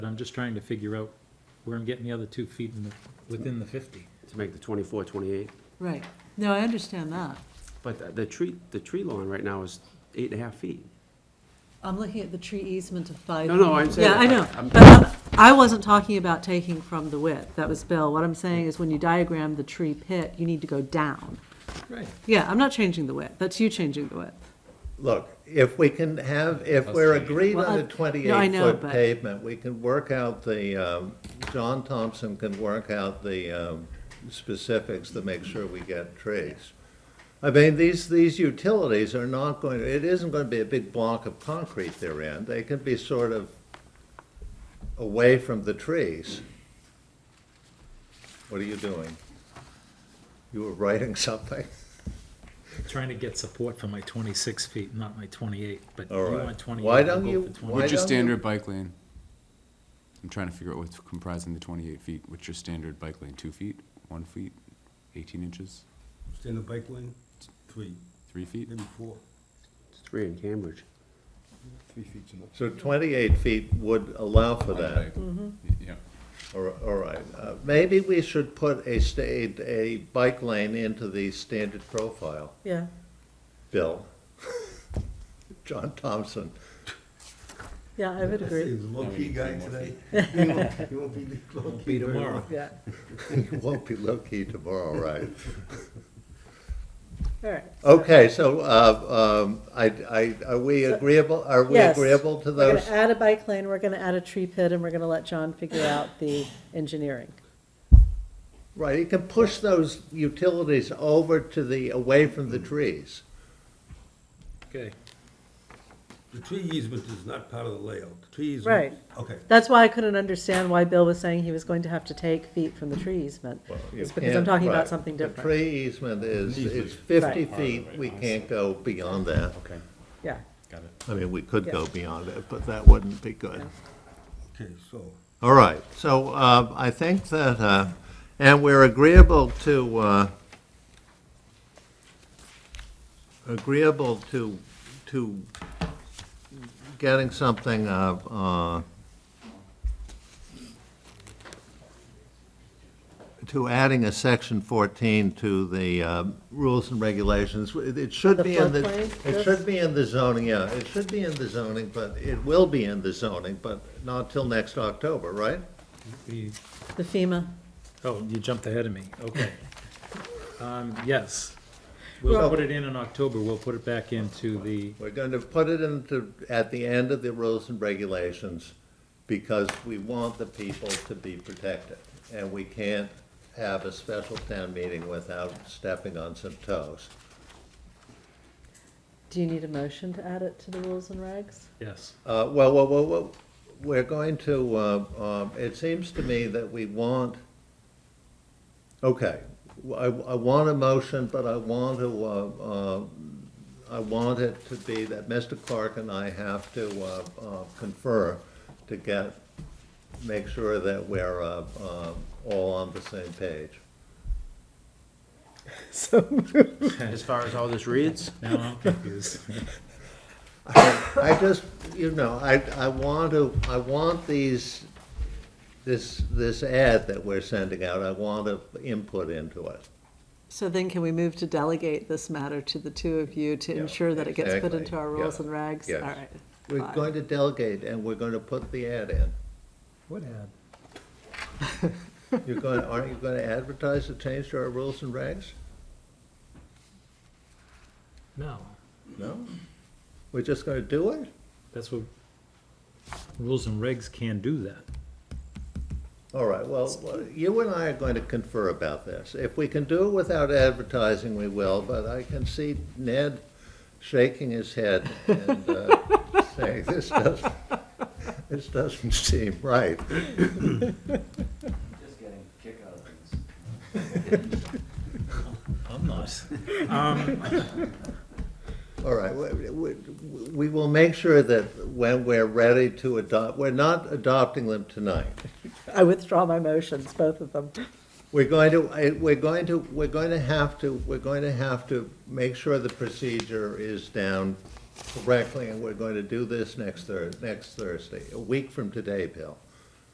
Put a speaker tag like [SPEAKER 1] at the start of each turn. [SPEAKER 1] But I'm just trying to figure out where I'm getting the other two feet in the, within the fifty.
[SPEAKER 2] to make the 24, 28.
[SPEAKER 3] Right. No, I understand that.
[SPEAKER 2] But the- the tree, the tree lawn right now is eight and a half feet.
[SPEAKER 3] I'm looking at the tree easement of five.
[SPEAKER 2] No, no, I'm saying.
[SPEAKER 3] Yeah, I know,
[SPEAKER 2] I'm-
[SPEAKER 3] but I'm- I wasn't talking about taking from the width, that was Bill. What I'm saying is when you diagram the tree pit, you need to go down.
[SPEAKER 1] Right.
[SPEAKER 3] Yeah, I'm not changing the width, that's you changing the width.
[SPEAKER 4] Look, if we can have, if we're agreed
[SPEAKER 3] Well,
[SPEAKER 4] on
[SPEAKER 3] I-
[SPEAKER 4] a
[SPEAKER 3] no, I know,
[SPEAKER 4] 28-foot
[SPEAKER 3] but-
[SPEAKER 4] pavement, we can work out the, um, John Thompson can work out the um, specifics to make sure we get trees. I mean, these, these utilities are not going, to. it isn't going to be a big block of concrete they're in. They can be sort of away from the trees. What are you doing? You were writing something?
[SPEAKER 1] Trying to get support for my twenty-six feet, not my twenty-eight, but you
[SPEAKER 4] All right.
[SPEAKER 1] want twenty-eight.
[SPEAKER 4] Why
[SPEAKER 1] I'll
[SPEAKER 4] don't
[SPEAKER 1] go
[SPEAKER 4] you-
[SPEAKER 1] for 28.
[SPEAKER 4] why
[SPEAKER 5] What's your
[SPEAKER 4] don't you-
[SPEAKER 5] standard bike lane? I'm trying to figure out what's comprising the twenty-eight feet. What's your standard bike lane? Two feet, one feet, eighteen inches,
[SPEAKER 6] Standard bike lane, three,
[SPEAKER 5] three feet?
[SPEAKER 6] maybe four,
[SPEAKER 2] It's three in Cambridge.
[SPEAKER 6] three feet's enough.
[SPEAKER 4] So 28 feet would allow for that.
[SPEAKER 5] Yeah.
[SPEAKER 4] All all right, Uh, maybe we should put a state, a bike lane into the standard profile,
[SPEAKER 3] Yeah.
[SPEAKER 4] Bill. John Thompson,
[SPEAKER 3] Yeah, I would
[SPEAKER 6] He's a low-key guy today. He won't- he won't be low-key
[SPEAKER 1] Be tomorrow.
[SPEAKER 3] Yeah,
[SPEAKER 4] you won't be low-key tomorrow, right?
[SPEAKER 3] all right.
[SPEAKER 4] Okay, so, uh, um, I, I, are we agreeable, are we
[SPEAKER 3] Yes.
[SPEAKER 4] agreeable to
[SPEAKER 3] We're
[SPEAKER 4] those?
[SPEAKER 3] gonna add a bike lane, we're gonna add a tree pit, and we're gonna let John figure out the engineering.
[SPEAKER 4] Right, you can push those utilities over to the, away from the trees.
[SPEAKER 1] Okay,
[SPEAKER 6] The tree easement is not part of the layout. The tree easement.
[SPEAKER 3] Right.
[SPEAKER 6] Okay,
[SPEAKER 3] That's why I couldn't understand why Bill was saying he was going to have to take feet from the tree easement.
[SPEAKER 4] You
[SPEAKER 3] It's because I'm
[SPEAKER 4] can't-
[SPEAKER 3] talking
[SPEAKER 4] right.
[SPEAKER 3] about something
[SPEAKER 4] The
[SPEAKER 3] different.
[SPEAKER 4] tree easement is, it's 50 feet, we can't go beyond that.
[SPEAKER 2] Okay.
[SPEAKER 3] Yeah,
[SPEAKER 4] I mean, we could go
[SPEAKER 3] Yeah.
[SPEAKER 4] beyond it, but that wouldn't be good.
[SPEAKER 6] okay, so,
[SPEAKER 4] All right, so uh, I think that, uh, and we're agreeable to, uh, agreeable to, to getting something uh, uh, to adding a section 14 to the uh, rules and regulations. It should
[SPEAKER 3] The
[SPEAKER 4] be in the,
[SPEAKER 3] floodplain,
[SPEAKER 4] it
[SPEAKER 3] yes?
[SPEAKER 4] should be in the zoning, yeah, it should be in the zoning, but it will be in the zoning, but not till next October, right?
[SPEAKER 1] we-
[SPEAKER 3] the FEMA.
[SPEAKER 1] oh, you jumped ahead of me, okay. Um, yes, we'll
[SPEAKER 4] Well-
[SPEAKER 1] put it in in October, we'll put it back into the,
[SPEAKER 4] We're going to put it into, at the end of the rules and regulations, because we want the people to be protected. And we can't have a special town meeting without stepping on some toes.
[SPEAKER 3] Do you need a motion to add it to the rules and regs?
[SPEAKER 1] yes.
[SPEAKER 4] Uh, Well, well, well, well, we're going to, uh, um, it seems to me that we want, okay, I I want a motion, but I want to, uh, uh, I want it to be that Mr. Clark and I have to uh, uh, confer to get, make sure that we're uh, um, all on the same page.
[SPEAKER 2] As far as all this reads,
[SPEAKER 1] Now I'm confused.
[SPEAKER 4] I just, you know, I, I want to, I want these, this, this ad that we're sending out, I want to input into it.
[SPEAKER 3] So then can we move to delegate this matter to the two of you to
[SPEAKER 4] Yeah,
[SPEAKER 3] ensure that it gets put
[SPEAKER 4] exactly.
[SPEAKER 3] into our rules
[SPEAKER 4] Yeah.
[SPEAKER 3] and regs?
[SPEAKER 4] Yes.
[SPEAKER 3] All right.
[SPEAKER 4] We're
[SPEAKER 3] fine.
[SPEAKER 4] going to delegate and we're going to put the ad in.
[SPEAKER 1] What ad?
[SPEAKER 4] You're going, aren't you going to advertise the change to our rules and regs?
[SPEAKER 1] No,
[SPEAKER 4] No? We're just going to do it?
[SPEAKER 1] that's what, rules and regs can do that.
[SPEAKER 4] All right, well, uh, you and I are going to confer about this. If we can do it without advertising, we will, but I can see Ned shaking his head and uh, saying, this doesn't, this doesn't seem right.
[SPEAKER 7] Just getting a kick out of things.
[SPEAKER 1] I'm not.
[SPEAKER 4] All right, we- we we will make sure that when we're ready to adopt, we're not adopting them tonight.
[SPEAKER 3] I withdraw my motions, both of them.
[SPEAKER 4] We're going to, I- we're going to, we're going to have to, we're going to have to make sure the procedure is down correctly, and we're going to do this next Thurs, next Thursday, a week from today, Bill.